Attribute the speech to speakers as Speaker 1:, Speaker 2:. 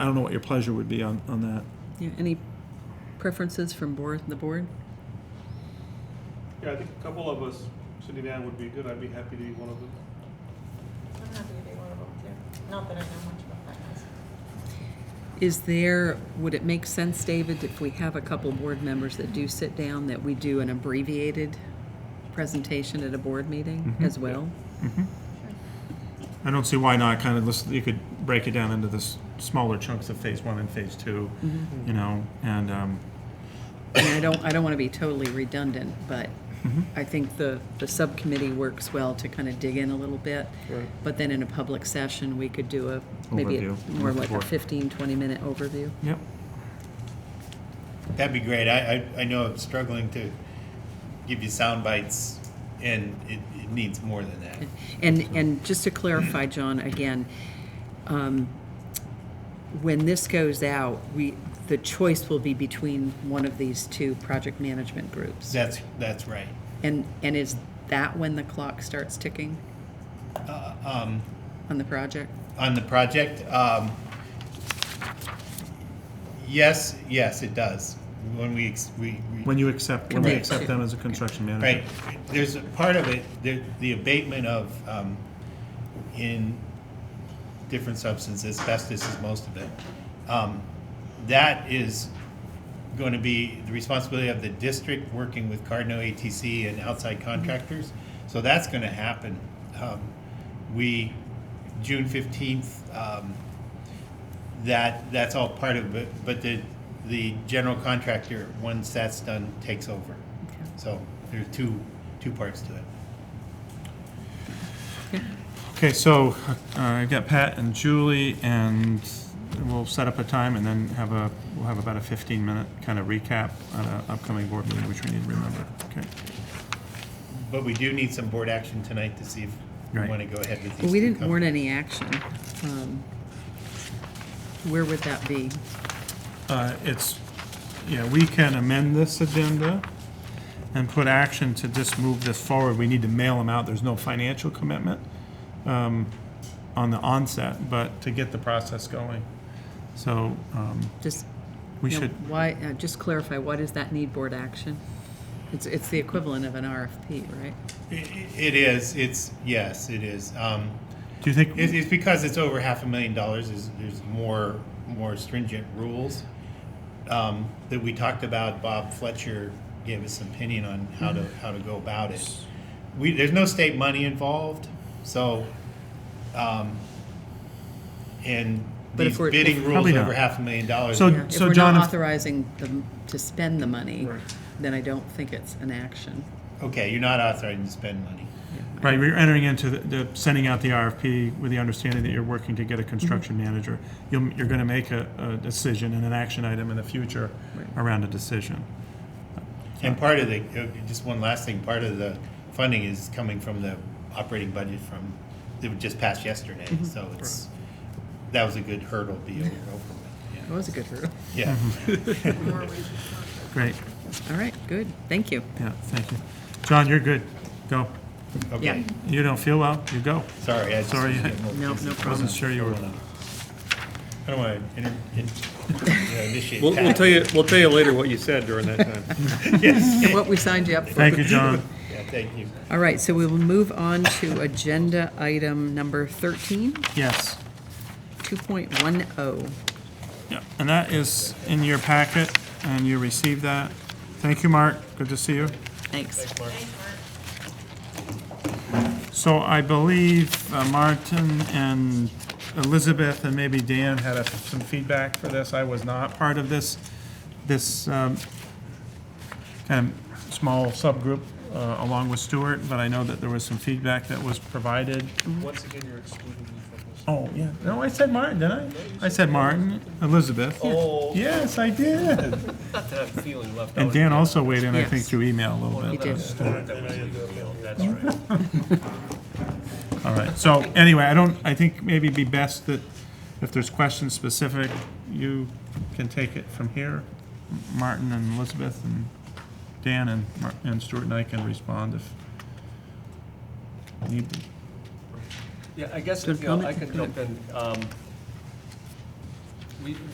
Speaker 1: I don't know what your pleasure would be on, on that.
Speaker 2: Yeah, any preferences from board, the board?
Speaker 3: Yeah, I think a couple of us sitting down would be good. I'd be happy to be one of them.
Speaker 4: I'm happy to be one of them too. Not that I know much about finance.
Speaker 2: Is there, would it make sense, David, if we have a couple board members that do sit down, that we do an abbreviated presentation at a board meeting as well?
Speaker 1: I don't see why not. Kind of listen, you could break it down into the s- smaller chunks of phase one and phase 2 you know, and um,
Speaker 2: I mean, I don't, I don't want to be totally redundant, but I think the, the subcommittee works well to kind of dig in a little bit.
Speaker 3: Right.
Speaker 2: But then in a public session, we could do a, maybe a-
Speaker 1: Overview.
Speaker 2: more like a
Speaker 1: Or-
Speaker 2: 15, 20-minute overview.
Speaker 1: yep.
Speaker 5: That'd be great. I, I, I know I'm struggling to give you sound bites, and it, it needs more than that.
Speaker 2: And, and just to clarify, John, again, um, when this goes out, we, the choice will be between one of these two project management groups.
Speaker 5: That's, that's right.
Speaker 2: And, and is that when the clock starts ticking
Speaker 5: Uh, um,
Speaker 2: on the project?
Speaker 5: on the project, um, yes, yes, it does. When we, ex- we, we
Speaker 1: When you accept, when we
Speaker 2: Right.
Speaker 1: accept them as a construction manager.
Speaker 5: Right, there's a part of it, the, the abatement of, um, in different substances, asbestos is most of it. Um, That is going to be the responsibility of the district working with Cardinal ATC and outside contractors. So that's going to happen. Um, We, June fifteenth, um, that, that's all part of it, but the, the general contractor, once that's done, takes over. So there's two, two parts to it.
Speaker 1: Okay, so uh, I've got Pat and Julie, and we'll set up a time, and then have a we'll have about a 15 minute kind of recap on an upcoming board meeting, which we need to remember. Okay.
Speaker 5: But we do need some board action tonight to see if we
Speaker 1: Right.
Speaker 5: want to go ahead with these.
Speaker 2: We
Speaker 5: two
Speaker 2: didn't warn
Speaker 5: companies.
Speaker 2: any action. Um, Where would that be?
Speaker 1: Uh, It's, yeah, we can amend this agenda and put action to just move this forward. We need to mail them out. There's no financial commitment um, on the onset, but to get the process going. So um,
Speaker 2: Just,
Speaker 1: we
Speaker 2: you know,
Speaker 1: should,
Speaker 2: why, uh, just clarify, why does that need board action? It's, it's the equivalent of an RFP, right?
Speaker 5: I- It is, it's, yes, it is. Um,
Speaker 1: do you think?
Speaker 5: It's, it's because it's over half a million dollars, is, there's more, more stringent rules um, that we talked about. Bob Fletcher gave us an opinion on how to, how to go about it. We, there's no state money involved, so, um, and
Speaker 2: But if
Speaker 5: these
Speaker 2: we're-
Speaker 5: bidding rules
Speaker 1: Probably not.
Speaker 5: over half a million dollars.
Speaker 1: So-
Speaker 2: Yeah, If
Speaker 1: so
Speaker 2: we're
Speaker 1: John,
Speaker 2: not
Speaker 1: if-
Speaker 2: authorizing them to spend the money,
Speaker 1: Right.
Speaker 2: then I don't think it's an action.
Speaker 5: Okay, you're not authorized to spend money.
Speaker 1: Right, we're entering into the, the, sending out the RFP with the understanding that you're working to get a construction manager. You'll, you're gonna make a, a decision and an action item in the future around a decision.
Speaker 5: And part of the, uh, just one last thing, part of the funding is coming from the operating budget from, it was just passed yesterday,
Speaker 2: Mm-hmm.
Speaker 5: so it's, that was a good hurdle to be over over with.
Speaker 2: That was a good hurdle.
Speaker 5: Yeah.
Speaker 4: More reasons not to.
Speaker 1: Great,
Speaker 2: All right, good, thank you.
Speaker 1: yeah, thank you. John, you're good, go.
Speaker 5: Yeah, okay,
Speaker 1: You don't feel well, you go.
Speaker 5: sorry. I just-
Speaker 1: Sorry.
Speaker 2: No, no problem.
Speaker 1: Wasn't sure you were.
Speaker 5: I don't want to initiate.
Speaker 3: We'll, we'll
Speaker 5: Pat.
Speaker 3: tell you, we'll tell you later what you said during that time.
Speaker 2: And what we signed you up for.
Speaker 1: Thank you, John.
Speaker 5: Yeah, thank you.
Speaker 2: All right, so we will move on to agenda item number 13,
Speaker 1: Yes.
Speaker 2: 2.10.
Speaker 1: Yeah, and that is in your packet, and you received that. Thank you, Mark, good to see you.
Speaker 2: Thanks.
Speaker 1: So I believe uh, Martin and Elizabeth and maybe Dan had a- some feedback for this. I was not part of this, this um, kind of small subgroup uh, along with Stuart, but I know that there was some feedback that was provided.
Speaker 3: Mm-hmm. Once again, you're excluding me from this.
Speaker 1: Oh, yeah. No, I said Martin, didn't I? I said Martin, Elizabeth.
Speaker 6: Oh.
Speaker 1: Yes, I did.
Speaker 6: Not that I'm feeling left out.
Speaker 1: And Dan also weighed in, I
Speaker 2: Yes.
Speaker 1: think, through email a little bit.
Speaker 2: You did.
Speaker 6: That was legal, That's right.
Speaker 1: All right, so anyway, I don't, I think maybe it'd be best that if there's questions specific, you can take it from here. Martin and Elizabeth and Dan and, Mar- and Stuart and I can respond if need be.
Speaker 6: Yeah, I guess,
Speaker 2: Good
Speaker 6: you know, I
Speaker 2: comment?
Speaker 6: could
Speaker 2: Go ahead.
Speaker 6: jump in. Um, we,